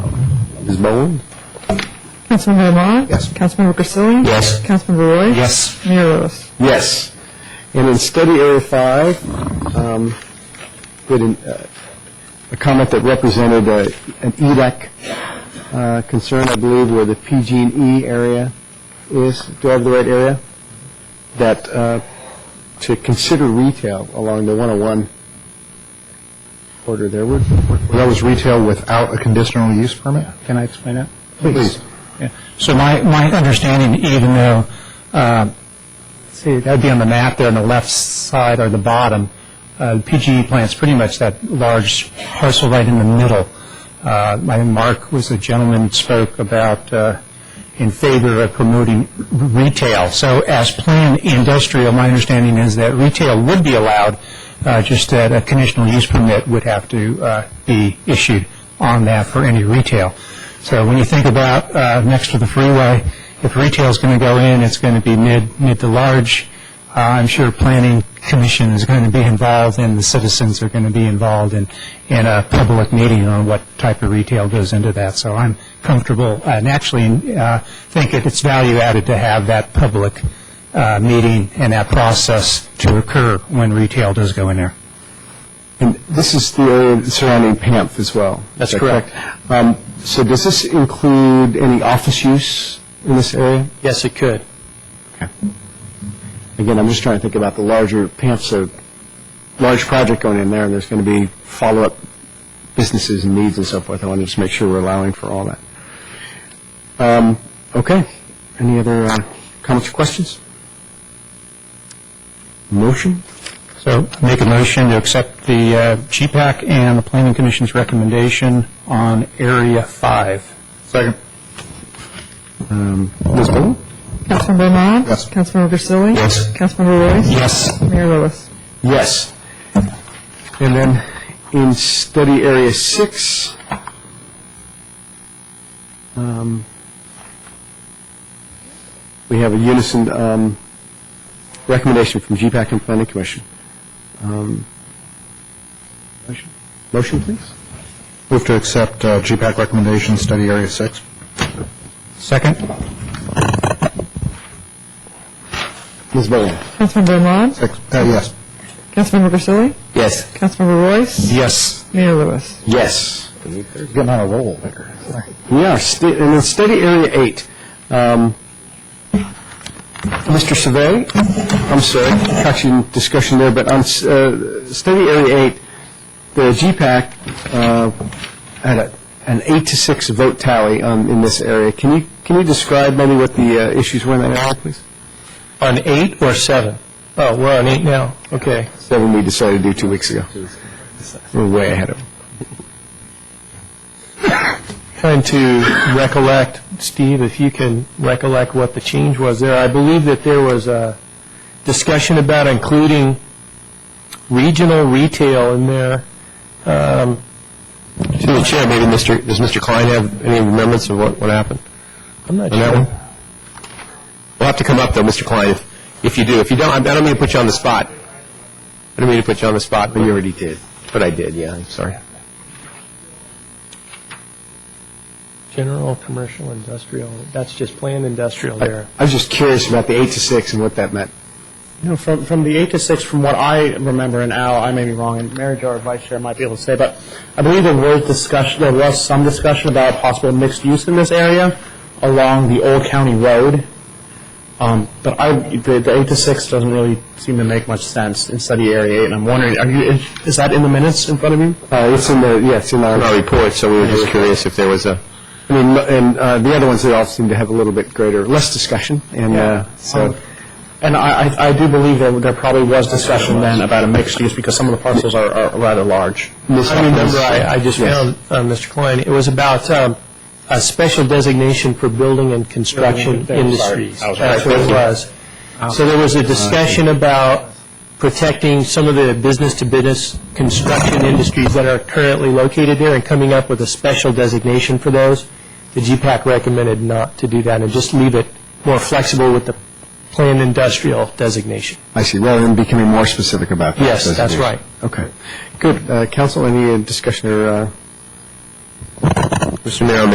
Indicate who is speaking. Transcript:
Speaker 1: Ms. Bowen?
Speaker 2: Councilmember Ahmad?
Speaker 1: Yes.
Speaker 2: Councilmember Grisilli?
Speaker 1: Yes.
Speaker 2: Councilmember Roy?
Speaker 1: Yes.
Speaker 2: Mayor Lewis?
Speaker 1: Yes. And in study area five, um, we had an, uh, a comment that represented uh, an EDAC uh, concern, I believe, where the PG&E E area is. Do I have the right area? That, uh, to consider retail along the 101 border there. Where-
Speaker 3: That was retail without a conditional use permit?
Speaker 1: Can I explain that?
Speaker 3: Please.
Speaker 4: Yeah. So my, my understanding, even though, uh, see, that would be on the map there on the left side or the bottom, uh, the PGE plant's pretty much that large parcel right in the middle. Uh, I think Mark was the gentleman who spoke about uh, in favor of promoting retail. So as planned industrial, my understanding is that retail would be allowed, uh, just that a conditional use permit would have to uh, be issued on that for any retail. So when you think about uh, next to the freeway, if retail's going to go in, it's going to be mid, mid to large. Uh, I'm sure Planning Commission is going to be involved, and the citizens are going to be involved in, in a public meeting on what type of retail goes into that. So I'm comfortable, and actually uh, think that it's value added to have that public uh, meeting and that process to occur when retail does go in there.
Speaker 1: And this is the area surrounding PAMP as well?
Speaker 4: That's
Speaker 1: Is that Um, So does this include any office use in this area?
Speaker 4: Yes, it could.
Speaker 1: Again, I'm just trying to think about the larger, PAMP's a large project going in there, and there's going to be follow-up businesses and needs and so forth. I want to just make sure we're allowing for all that. Um, Okay. Any other uh, comments or questions? Motion?
Speaker 4: So make a motion to accept the uh, GPAC and the Planning Commission's recommendation on Area 5.
Speaker 3: Second.
Speaker 1: Um, Ms. Bowman?
Speaker 2: Councilmember Ahmad?
Speaker 3: Yes.
Speaker 2: Councilmember Grisilli? Yes. Councilmember Roy?
Speaker 4: Yes.
Speaker 2: Mayor Lewis?
Speaker 1: Yes. And then in study area six, um, we have a unison um, recommendation from GPAC and Planning Commission. Um, motion- Motion, please?
Speaker 3: Move to accept uh, GPAC recommendation, study area six.
Speaker 4: Second?
Speaker 1: Ms. Bowen?
Speaker 2: Councilmember Ahmad?
Speaker 3: Six- uh, Yes.
Speaker 2: Councilmember Grisilli?
Speaker 1: Yes.
Speaker 2: Councilmember Royce?
Speaker 4: Yes.
Speaker 2: Mayor Lewis?
Speaker 1: Yes.
Speaker 3: Getting on a roll there.
Speaker 1: Yeah, sta- and then study area eight. Um, Mr. Savay, I'm sorry, caught you in discussion there, but on s- uh, study area eight, the GPAC uh, had a- an eight to six vote tally on- in this area. Can you, can you describe maybe what the uh, issues were in that area, please?
Speaker 4: On 8 or 7? Oh, we're on 8 now. Okay.
Speaker 1: Seven we decided to do two weeks ago. We're way ahead of them.
Speaker 5: trying to recollect, Steve, if you can recollect what the change was there. I believe that there was a discussion about including regional retail in there. Um,
Speaker 1: Through the chair, maybe Mr., does Mr. Klein have any remembrance of what, what happened?
Speaker 5: I'm not
Speaker 1: on that
Speaker 5: sure.
Speaker 1: one? We'll have to come up, though, Mr. Klein, if, if you do. If you don't, I don't mean to put you on the spot. I don't mean to put you on the spot. But you already did. But I did, yeah, I'm sorry.
Speaker 5: General, commercial, industrial, that's just planned industrial
Speaker 1: I
Speaker 5: there.
Speaker 1: was just curious about the eight to six and what that meant.
Speaker 6: No, from, from the 8 to 6, from what I remember, and Al, I may be wrong, and Mary Jo, our vice chair, might be able to say, but I believe there was discussion, there was some discussion about possible mixed use in this area along the Old County Road. Um, But I, the the 8 to 6 doesn't really seem to make much sense in study area 8, and I'm wondering, are you, is- is that in the minutes in front of you?
Speaker 1: Uh, it's in the, yeah, it's in our... report, so we were just curious if there was a... I mean, and uh, the other ones, they all seem to have a little bit greater, less discussion, and uh, so...
Speaker 6: Um, And I, I- I do believe there, there probably was discussion then about a mixed use, because some of the parcels are, are rather large.
Speaker 5: I remember, I I just found, uh, Mr. Klein, it was about um, a special designation for building and construction industries. That's what it was. So there was a discussion about protecting some of the business-to-business construction industries that are currently located there and coming up with a special designation for those. The GPAC recommended not to do that and just leave it more flexible with the planned industrial designation.
Speaker 1: I see, rather than becoming more specific about that.
Speaker 5: Yes, that's right.
Speaker 1: Okay. Good. Uh, Council, any uh, discussion or... Mr. Mayor,